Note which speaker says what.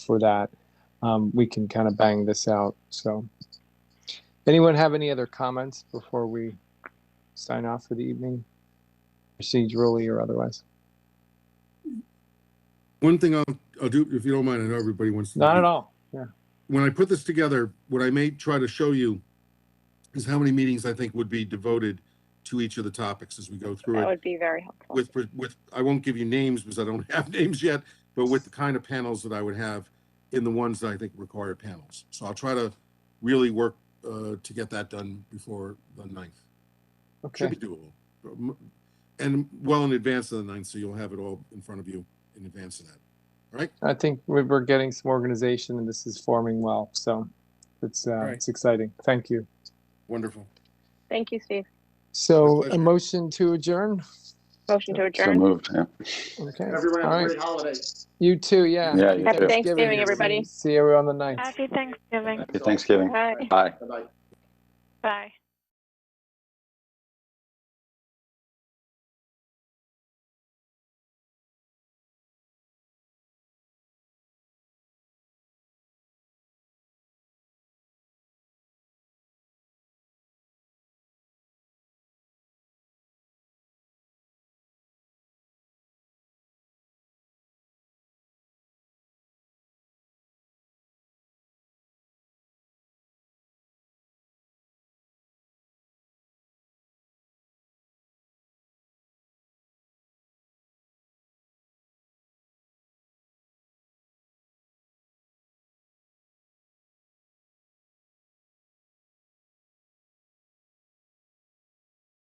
Speaker 1: for that, um, we can kind of bang this out. So, anyone have any other comments before we sign off for the evening, procedurally or otherwise?
Speaker 2: One thing I'll, I'll do, if you don't mind, I know everybody wants to.
Speaker 1: Not at all. Yeah.
Speaker 2: When I put this together, what I may try to show you is how many meetings I think would be devoted to each of the topics as we go
Speaker 3: That
Speaker 2: through it.
Speaker 3: would be very helpful.
Speaker 2: With, with, I won't give you names because I don't have names yet, but with the kind of panels that I would have in the ones that I think require panels. So I'll try to really work, uh, to get that done before the ninth. Should
Speaker 1: Okay.
Speaker 2: be doable. Um, And well in advance of the ninth, so you'll have it all in front of you in advance of that. All right?
Speaker 1: I think we- we're getting some organization and this is forming well. So, it's, uh,
Speaker 2: Right.
Speaker 1: it's exciting. Thank you.
Speaker 2: Wonderful.
Speaker 3: Thank you, Steve.
Speaker 1: So,
Speaker 2: My
Speaker 1: a
Speaker 2: pleasure.
Speaker 1: motion to adjourn.
Speaker 3: Motion to
Speaker 4: So
Speaker 3: adjourn.
Speaker 4: moved, yeah.
Speaker 1: Okay. All
Speaker 5: Everyone have a
Speaker 1: right.
Speaker 5: great holiday.
Speaker 1: You too. Yeah.
Speaker 4: Yeah, you
Speaker 3: Happy
Speaker 4: too.
Speaker 3: Thanksgiving, everybody.
Speaker 1: See you on the ninth.
Speaker 6: Happy Thanksgiving.
Speaker 4: Happy Thanksgiving.
Speaker 3: Bye.
Speaker 4: Bye.
Speaker 5: Bye-bye.
Speaker 6: Bye.